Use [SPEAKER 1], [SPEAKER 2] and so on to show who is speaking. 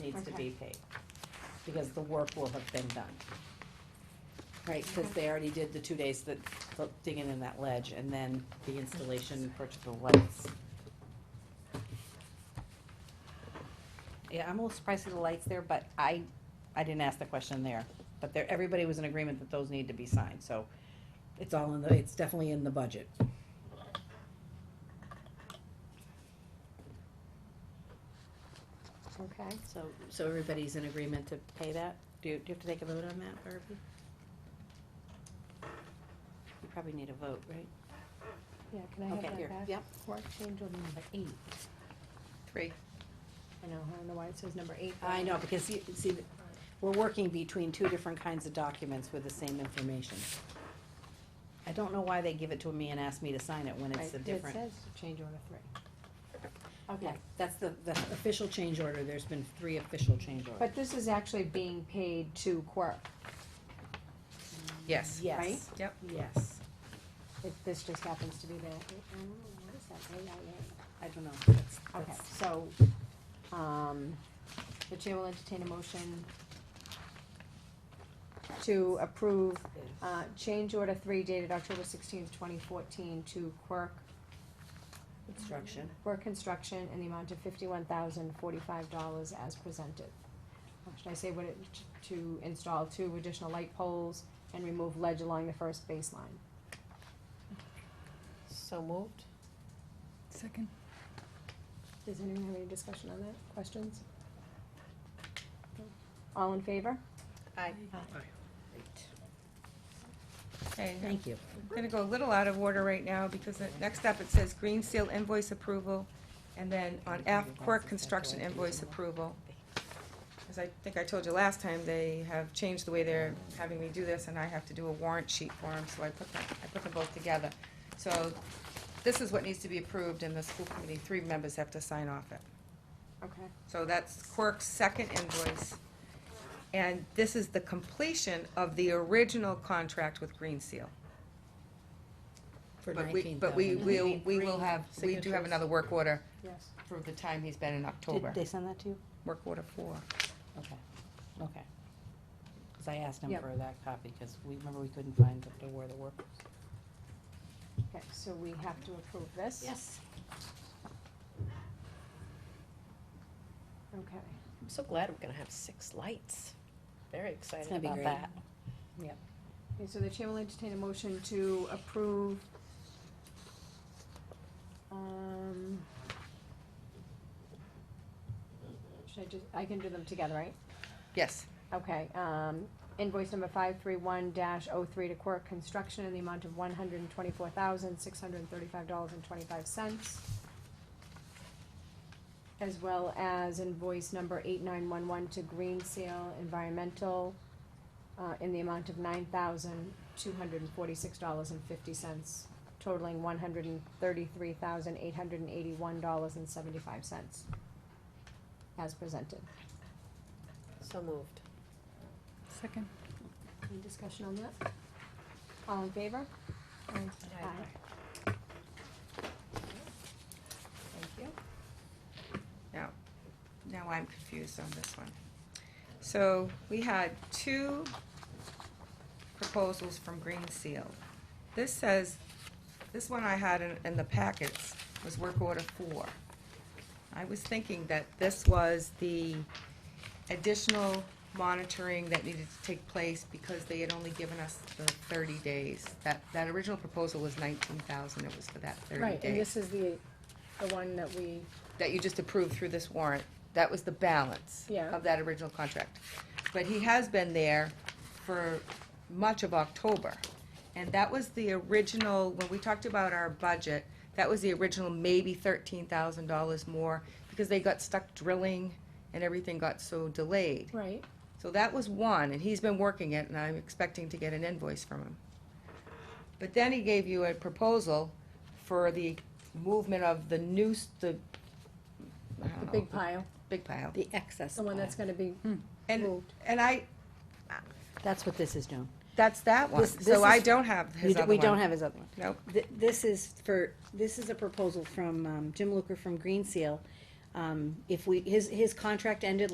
[SPEAKER 1] needs to be
[SPEAKER 2] Okay.
[SPEAKER 1] paid, because the work will have been done. Right, cause they already did the two days that, the digging in that ledge, and then the installation, purchase of the lights. Yeah, I'm a little surprised at the lights there, but I, I didn't ask the question there, but there, everybody was in agreement that those need to be signed, so it's all in the, it's definitely in the budget.
[SPEAKER 2] Okay.
[SPEAKER 1] So, so everybody's in agreement to pay that? Do you, do you have to take a vote on that, Barbie? You probably need a vote, right?
[SPEAKER 2] Yeah, can I have
[SPEAKER 1] Okay,
[SPEAKER 2] that
[SPEAKER 1] here,
[SPEAKER 2] back?
[SPEAKER 1] yep.
[SPEAKER 2] Warrant change order number eight.
[SPEAKER 1] Three.
[SPEAKER 2] I know, I don't know why it says number eight. but-
[SPEAKER 1] I know, because you, see, we're working between two different kinds of documents with the same information. I don't know why they give it to me and ask me to sign it when it's
[SPEAKER 2] Right,
[SPEAKER 1] a different.
[SPEAKER 2] It says change order three.
[SPEAKER 1] Yeah, that's the, the official change order, there's been three official change orders.
[SPEAKER 2] But this is actually being paid to Quirk.
[SPEAKER 3] Yes.
[SPEAKER 2] right?
[SPEAKER 1] Yes.
[SPEAKER 3] Yep.
[SPEAKER 1] Yes,
[SPEAKER 2] If this just happens to be the, I don't know, what is that, AIA?
[SPEAKER 1] I don't know, that's,
[SPEAKER 2] Okay,
[SPEAKER 1] that's,
[SPEAKER 2] so, um, the chair will entertain a motion to approve, uh, change order three dated October sixteenth, twenty fourteen to Quirk
[SPEAKER 1] instruction.
[SPEAKER 2] for construction in the amount of fifty-one thousand forty-five dollars as presented. Or Should I say what it, to install two additional light poles and remove ledge along the first baseline?
[SPEAKER 3] So moved?
[SPEAKER 4] Second.
[SPEAKER 2] Does anyone have any discussion on that, questions? No? All in favor?
[SPEAKER 3] Aye. Okay, I'm
[SPEAKER 1] Thank you.
[SPEAKER 3] gonna go a little out of order right now, because the- next up it says green seal invoice approval, and then on F, Quirk construction invoice approval. As I think I told you last time, they have changed the way they're having me do this, and I have to do a warrant sheet for them, so I put them, I put them both together. So, this is what needs to be approved, and the school committee, three members have to sign off it.
[SPEAKER 2] Okay.
[SPEAKER 3] So that's Quirk's second invoice. And this is the completion of the original contract with Green Seal.
[SPEAKER 1] For
[SPEAKER 3] But we, but we
[SPEAKER 1] $19,000.
[SPEAKER 3] will, we will have, we do have
[SPEAKER 1] signatures?
[SPEAKER 3] another work order
[SPEAKER 2] Yes.
[SPEAKER 3] for the time he's been in October.
[SPEAKER 1] Did they send that to you?
[SPEAKER 3] Work order four.
[SPEAKER 1] Okay, okay. Cause I asked him
[SPEAKER 2] Yep.
[SPEAKER 1] for that copy, cause we, remember we couldn't find the, where the work was.
[SPEAKER 2] Okay, so we have to approve this?
[SPEAKER 1] Yes.
[SPEAKER 2] Okay.
[SPEAKER 5] I'm so glad we're gonna have six lights. Very
[SPEAKER 1] It's
[SPEAKER 5] excited
[SPEAKER 1] gonna be
[SPEAKER 5] about
[SPEAKER 1] great.
[SPEAKER 5] that.
[SPEAKER 2] Okay, so the chair will entertain a motion to approve, um, should I just, I can do them together, right?
[SPEAKER 3] Yes,
[SPEAKER 2] Okay, um, invoice number five three one dash oh three to Quirk Construction in the amount of one hundred and twenty-four thousand, six hundred and thirty-five dollars and twenty-five cents. As well as invoice number eight nine one one to Green Seal Environmental, uh, in the amount of nine thousand, two hundred and forty-six dollars and fifty cents, totaling one hundred and thirty-three thousand, eight hundred and eighty-one dollars and seventy-five cents. As presented.
[SPEAKER 5] So moved.
[SPEAKER 4] Second.
[SPEAKER 2] Any discussion on that? All in favor?
[SPEAKER 3] Thank you. Now, now I'm confused on this one. So we had two proposals from Green Seal. This says, this one I had in, in the packets was work order four. I was thinking that this was the additional monitoring that needed to take place because they had only given us the thirty days. That, that original proposal was nineteen thousand, it was for that thirty days
[SPEAKER 2] Right, and this is the, the one that we,
[SPEAKER 3] that you just approved through this warrant, that was the balance
[SPEAKER 2] Yeah.
[SPEAKER 3] of that original contract. But he has been there for much of October. And that was the original, when we talked about our budget, that was the original maybe thirteen thousand dollars more because they got stuck drilling and everything got so delayed.
[SPEAKER 2] right,
[SPEAKER 3] So that was one, and he's been working it, and I'm expecting to get an invoice from him. But then he gave you a proposal for the movement of the new, s- the, I don't
[SPEAKER 2] the
[SPEAKER 3] know,
[SPEAKER 2] big pile,
[SPEAKER 3] Big pile.
[SPEAKER 1] The excess.
[SPEAKER 2] the one that's gonna be
[SPEAKER 3] And,
[SPEAKER 2] moved.
[SPEAKER 3] and I,
[SPEAKER 1] That's what this is doing.
[SPEAKER 3] that's that one,
[SPEAKER 1] This- this
[SPEAKER 3] so I
[SPEAKER 1] is-
[SPEAKER 3] don't have his
[SPEAKER 1] You d-
[SPEAKER 3] other
[SPEAKER 1] We don't
[SPEAKER 3] one.
[SPEAKER 1] have his other one.
[SPEAKER 3] Nope,
[SPEAKER 1] Th- This is for, this is a proposal from um, Jim Luker from Green Seal. Um, If we, his, his contract ended